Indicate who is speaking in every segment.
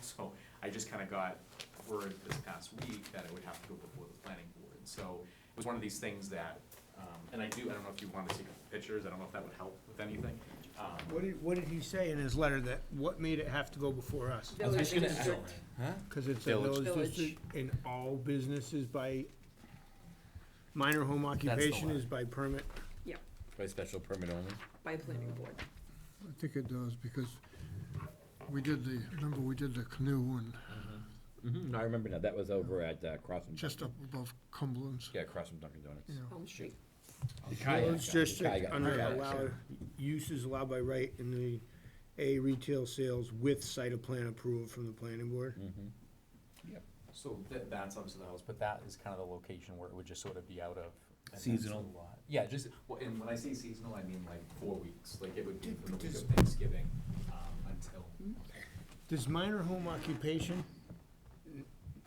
Speaker 1: So I just kind of got word this past week that it would have to go before the planning board. So it was one of these things that, um, and I do, I don't know if you want to take pictures, I don't know if that would help with anything. Um,
Speaker 2: What did, what did he say in his letter that, what made it have to go before us?
Speaker 3: I was just gonna ask-
Speaker 2: Cause it's a
Speaker 4: Village.
Speaker 2: village
Speaker 3: Village.
Speaker 2: district and all businesses by, minor home occupation
Speaker 4: one.
Speaker 2: is by permit.
Speaker 3: Yeah,
Speaker 4: By special permit only?
Speaker 3: by planning board.
Speaker 5: I think it does, because we did the, remember, we did the canoe one
Speaker 4: Mm-hmm, I remember now, that was over at, uh, Cross from.
Speaker 5: just up above Cumberland's,
Speaker 4: Yeah, across from Dunkin' Donuts.
Speaker 5: you know.
Speaker 3: Home Street.
Speaker 4: The kayak guy,
Speaker 2: Village
Speaker 4: the
Speaker 2: district
Speaker 4: kayak guy,
Speaker 2: under
Speaker 4: kayak
Speaker 2: allowed,
Speaker 4: guy.
Speaker 2: uses allowed by right in the A retail sales with site of plan approval from the planning board.
Speaker 4: Hmm.
Speaker 1: So that, that's obviously the house, but that is kind of the location where it would just sort of be out of. and that's
Speaker 4: Seasonal.
Speaker 1: a lot. Yeah, just, well, and when I say seasonal, I mean like four weeks, like it would be from the week of Thanksgiving, um, until.
Speaker 2: Does minor home occupation n-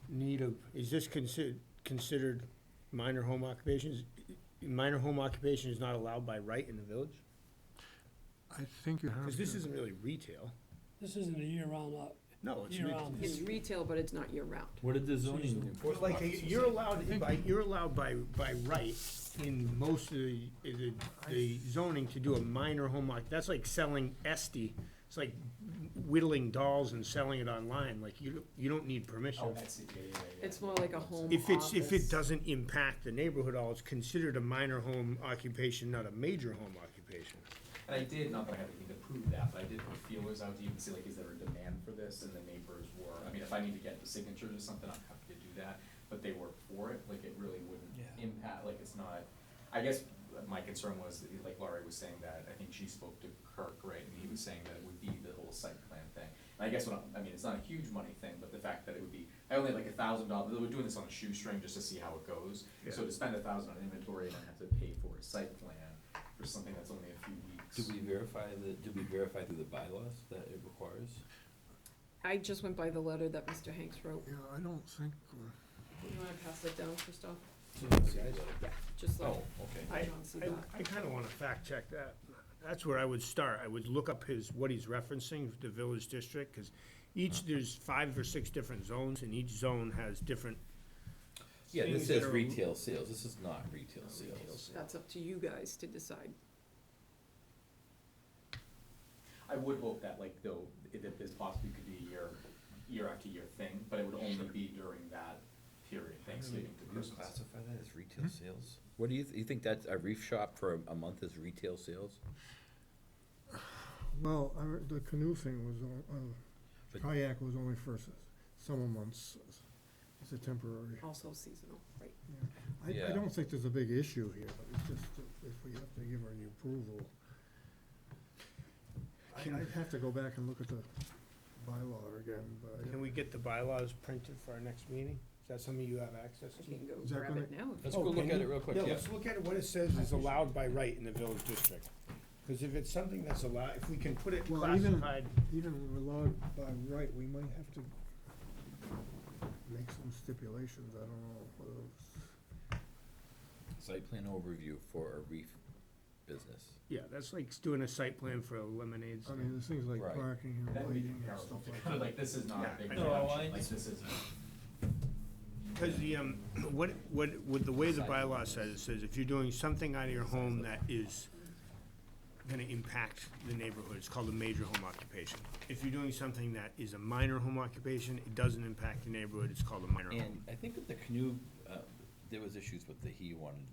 Speaker 2: need a, is this considered, considered minor home occupations? Minor home occupation is not allowed by right in the village?
Speaker 5: I think you have
Speaker 2: Cause this
Speaker 5: to,
Speaker 2: isn't really retail.
Speaker 6: This isn't a year-round lot.
Speaker 2: No, it's.
Speaker 6: Year-round.
Speaker 3: It's retail, but it's not year-round.
Speaker 4: What did the
Speaker 6: zoning
Speaker 2: Well, um, like, you're allowed by, you're allowed by, by right in most of the, the- the zoning to do a minor home occup, that's like selling Esti. It's like whittling dolls and selling it online, like, you, don't- you don't need permission.
Speaker 1: Oh, that's it, yeah, yeah, yeah, yeah.
Speaker 3: It's more like a home
Speaker 2: If it's, if
Speaker 3: office.
Speaker 2: it doesn't impact the neighborhood at all, it's considered a minor home occupation, not a major home occupation.
Speaker 1: And I did, not that I had anything to prove that, but I did put feelers out to even see like, is there a demand for this? And the neighbors were, I mean, if I need to get the signatures or something, I'm happy to do that, but they were for it, like, it really wouldn't
Speaker 6: Yeah.
Speaker 1: impact, like, it's not, I guess my concern was, that, like Laurie was saying that, I think she spoke to Kirk, right, and he was saying that it would be the whole site plan thing. And I guess what I'm, I mean, it's not a huge money thing, but the fact that it would be, I only had like a thousand dollars, we're doing this on a shoestring just to see how it goes. So
Speaker 2: Yeah.
Speaker 1: to spend a thousand on inventory and then have to pay for a site plan for something that's only a few weeks.
Speaker 4: Did we verify the, did we verify through the bylaws that it requires?
Speaker 3: I just went by the letter that Mr. Hanks wrote.
Speaker 5: yeah, I don't think, uh,
Speaker 3: You wanna pass that down, Christoph?
Speaker 4: Oh,
Speaker 3: Yeah, just like,
Speaker 4: okay.
Speaker 3: I don't see
Speaker 2: I,
Speaker 3: that.
Speaker 2: I kinda wanna fact check that. That's where I would start. I would look up his, what he's referencing, the village district, cause each, there's five or six different zones, and each zone has different.
Speaker 4: Yeah, this
Speaker 2: things that
Speaker 4: says
Speaker 2: are-
Speaker 4: retail sales, this is not retail sales.
Speaker 3: That's up to you guys to decide.
Speaker 1: I would hope that like though, i- that this possibly could be a year, year after year thing, but it would only be during that period, Thanksgiving to Christmas.
Speaker 4: Classify that as retail sales? What do you, th- you think that's, a reef shop for a- a month is retail sales?
Speaker 5: well, I, re- the canoe thing was, on- uh,
Speaker 4: But-
Speaker 5: kayak was only for s- summer months. It's a temporary.
Speaker 3: Also seasonal, right?
Speaker 5: I, I
Speaker 4: Yeah.
Speaker 5: don't think there's a big issue here, but it's just that if we have to give her the approval. I,
Speaker 2: Can-
Speaker 5: I'd have to go back and look at the bylaw again, but. I don't-
Speaker 2: Can we get the bylaws printed for our next meeting? Is that something you have access
Speaker 3: I
Speaker 2: to?
Speaker 3: can go
Speaker 5: Is that
Speaker 3: grab
Speaker 5: gonna-
Speaker 3: it now. if-
Speaker 4: Let's
Speaker 2: Oh,
Speaker 4: go look
Speaker 2: can
Speaker 4: at
Speaker 2: you?
Speaker 4: it real quick,
Speaker 2: Yeah,
Speaker 4: yeah.
Speaker 2: let's look at what it says is allowed by right in the village district. Because if it's something that's allowed, if we can put it
Speaker 5: Well, even-
Speaker 2: classified,
Speaker 5: Even allowed by right, we might have to make some stipulations, I don't know. whether it's-
Speaker 4: Site plan overview for a reef business.
Speaker 2: yeah, that's like doing a site plan for a lemonade
Speaker 5: I
Speaker 2: stand.
Speaker 5: mean, there's things like
Speaker 4: Right.
Speaker 5: parking and
Speaker 1: That would be
Speaker 5: lighting and
Speaker 1: comparable,
Speaker 5: stuff like
Speaker 1: but
Speaker 5: that.
Speaker 1: like this is not a
Speaker 2: Yeah, Oh,
Speaker 1: big
Speaker 2: I
Speaker 1: production,
Speaker 2: know,
Speaker 1: like this is.
Speaker 2: Because the, um, what, what, what, the way the bylaw says, it says if you're doing something out of your home that is gonna impact the neighborhood, it's called a major home occupation. If you're doing something that is a minor home occupation, it doesn't impact the neighborhood, it's called a minor home.
Speaker 4: And I think with the canoe, uh, there was issues with the, he wanted,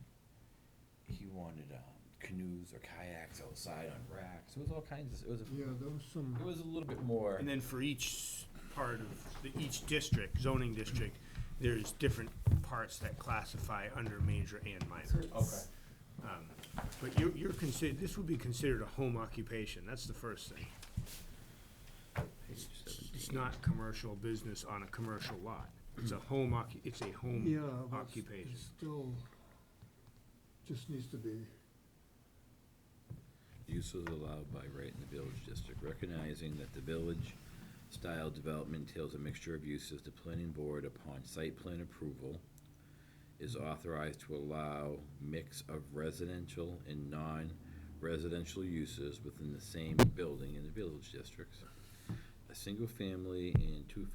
Speaker 4: he wanted, um, canoes or kayaks outside on racks, it was all kinds of, it was, a-
Speaker 5: Yeah, there was some,
Speaker 4: it was a little bit more.
Speaker 2: And then for each part of, the- each district, zoning district, there's different parts that classify under major and
Speaker 3: So
Speaker 2: minor.
Speaker 3: it's-
Speaker 2: Um, But you're, you're considered, this would be considered a home occupation, that's the first thing.
Speaker 4: Page
Speaker 2: It's
Speaker 4: 17.
Speaker 2: not commercial business on a commercial lot. It's a home occu, it's a
Speaker 5: yeah,
Speaker 2: home
Speaker 5: but it's-
Speaker 2: occupation.
Speaker 5: it's still, just needs to be,
Speaker 4: Use is allowed by right in the village district, recognizing that the village style development entails a mixture of uses, the planning board upon site plan approval is authorized to allow mix of residential and non-residential uses within the same building in the village districts. A single family and two